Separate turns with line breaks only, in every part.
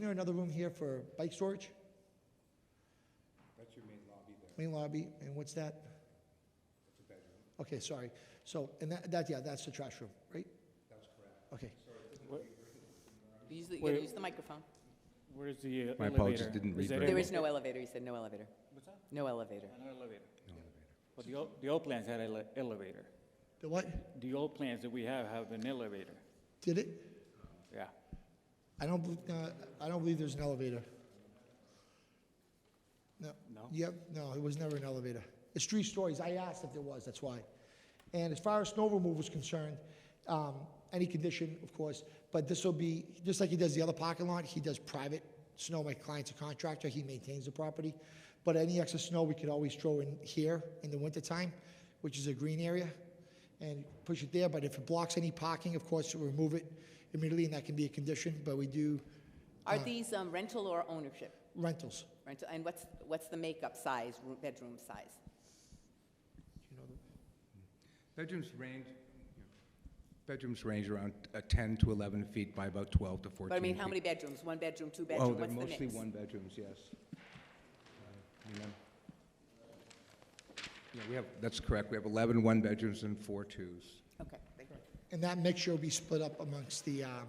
there another room here for bike storage?
That's your main lobby there,
Main lobby, and what's that?
that's a bedroom,
Okay, sorry. So, and that, that, yeah, that's the trash room, right?
that's correct.
Okay.
Use the, you gotta
Where-
use the microphone.
Where's the uh, elevator?
My apologies, didn't read
that
very
it?
There is no elevator, he said, no elevator.
What's that?
No elevator.
An elevator. But the old, the old plans had an elevator.
The what?
The old plans that we have have an elevator,
Did it?
yeah.
I don't, believe- uh, I don't believe there's an elevator. No.
No?
Yep, no, it was never an elevator. It's three stories. I asked if there was, that's why. And as far as snow removal is concerned, um, any condition, of course, but this will be, just like he does the other parking lot, he does private snow. My client's a contractor, he maintains the property. But any excess snow, we could always throw in here in the wintertime, which is a green area, and push it there. But if it blocks any parking, of course, we'll remove it immediately, and that can be a condition, but we do
Are
Uh-huh.
these um, rental or ownership?
rentals.
Rental, and what's, what's the makeup size, roo- bedroom size?
Bedrooms range, you know, bedrooms range around uh, 10 to 11 feet by about 12 to 14 feet.
But I mean, how many bedrooms? One bedroom, two
Oh,
bedroom,
they're
what's the
mostly
mix?
one-bedrooms, yes. Uh, and then- Yeah, we have, that's correct, we have 11 one-bedrooms and four twos.
Okay, thank you.
And that mixture will be split up amongst the, um,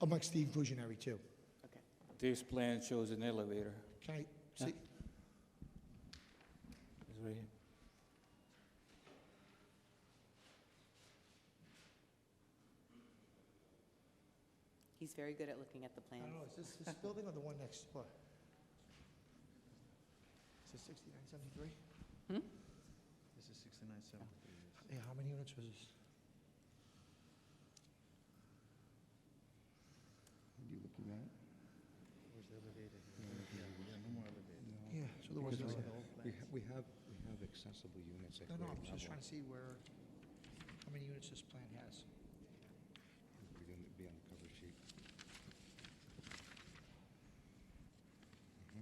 amongst the inclusionary too.
Okay.
This plan shows an elevator.
Can I see?
It's right here.
He's very good at looking at the plans.
is this, this building or the one next door? Is this sixty-nine seventy-three?
This is sixty-nine seventy-three.
Yeah, how many units was this?
What are you looking at?
Where's the elevator? Yeah, yeah, no more elevator.
Yeah, so there was, no-
Because I-
Those are the old
We
plans.
ha- we have, we have accessible units at
no,
grade
no,
level.
I'm just trying to see where, how many units this plan has.
We're gonna be on the cover sheet. Mm-hmm.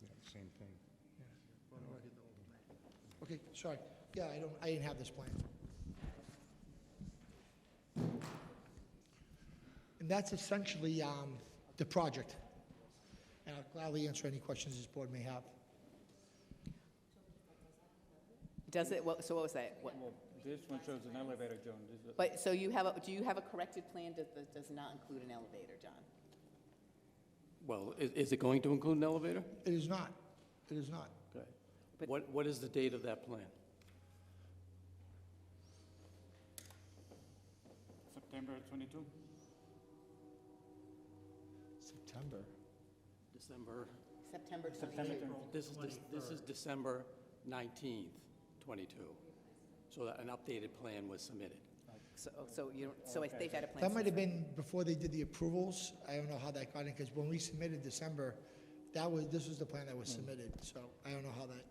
Says 15 here.
Yeah, same thing.
Yeah.
Well, no, get the old plan.
Okay, sorry. Yeah, I don't, I didn't have this plan. And that's essentially um, the project. And I'll gladly answer any questions this board may have.
Does it, what- so what was that? What-
Well, this one shows an elevator, Joan. This is-
But, so you have, a do you have a corrected plan that that does not include an elevator, John?
Well, i- is it going to include an elevator?
It is not, it is not.
Okay.
But-
What, what is the date of that plan?
September 22?
September.
December,
September
September
28th?
22.
this is, dec- this is December 19th, 22. So that an updated plan was submitted.
So, so you, don't- so I-
Oh,
they've had a plan.
That might
since
have been before they did the approvals. I don't know how that got in, because when we submitted December, that was, this was the plan that was
Hmm.
submitted, so I don't know how that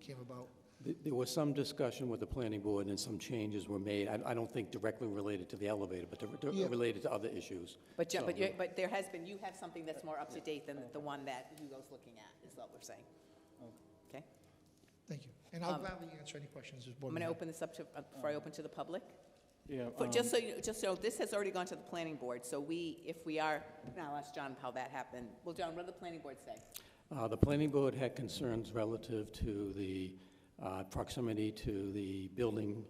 came about.
Th- There was some discussion with the planning board and some changes were made. I, I don't think directly related to the elevator, but to-
Yeah.
to- related to other issues.
But, Jo- but,
So-
you're- but there has been, you have something that's more up to date than the one that Hugo's looking at, is what we're saying. Okay?
Thank you. And I'll
Um,
gladly answer any questions this board
I'm
may
going to
have.
open this up to, uh, before I open to the public.
Yeah.
For-
um,
Just so you, just so, this has already gone to the planning board, so we, if we are, now I'll ask John how that happened. Well, John, what did the planning board say?
Uh, The planning board had concerns relative to the uh, proximity to the building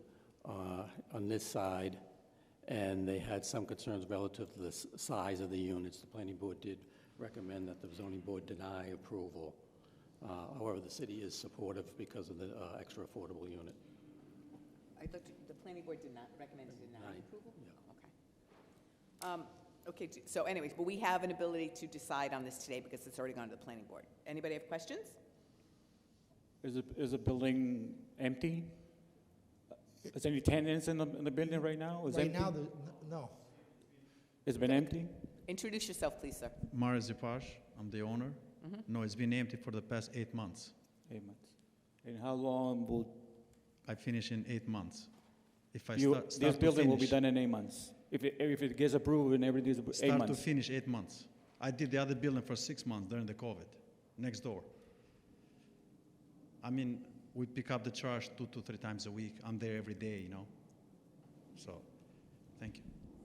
uh, on this side, and they had some concerns relative to the s- size of the units. The planning board did recommend that the zoning board deny approval. Uh, However, the city is supportive because of the uh, extra affordable unit.
I looked, the planning board did not recommend to deny
Deny,
approval?
yeah.
Okay. Um, Okay, d- so anyways, but we have an ability to decide on this today because it's already gone to the planning board. Anybody have questions?
Is the, is the building empty? Is there any tenants in the, in the building right now? Is
Right
empty?
now, the- no.
It's been empty?
Introduce yourself, please, sir.
Mara Zipash, I'm the owner.
Mm-hmm.
No, it's been empty for the past eight months.
Eight months. And how long will,
I finish in eight months. If I
you,
start,
this
start to
building will be
finish,
done in eight months? If it, if it gets approved and everything is, appro- eight
start to
months?
finish, eight months. I did the other building for six months during the COVID, next door. I mean, we pick up the trash two to three times a week. I'm there every day, you know? So, thank you.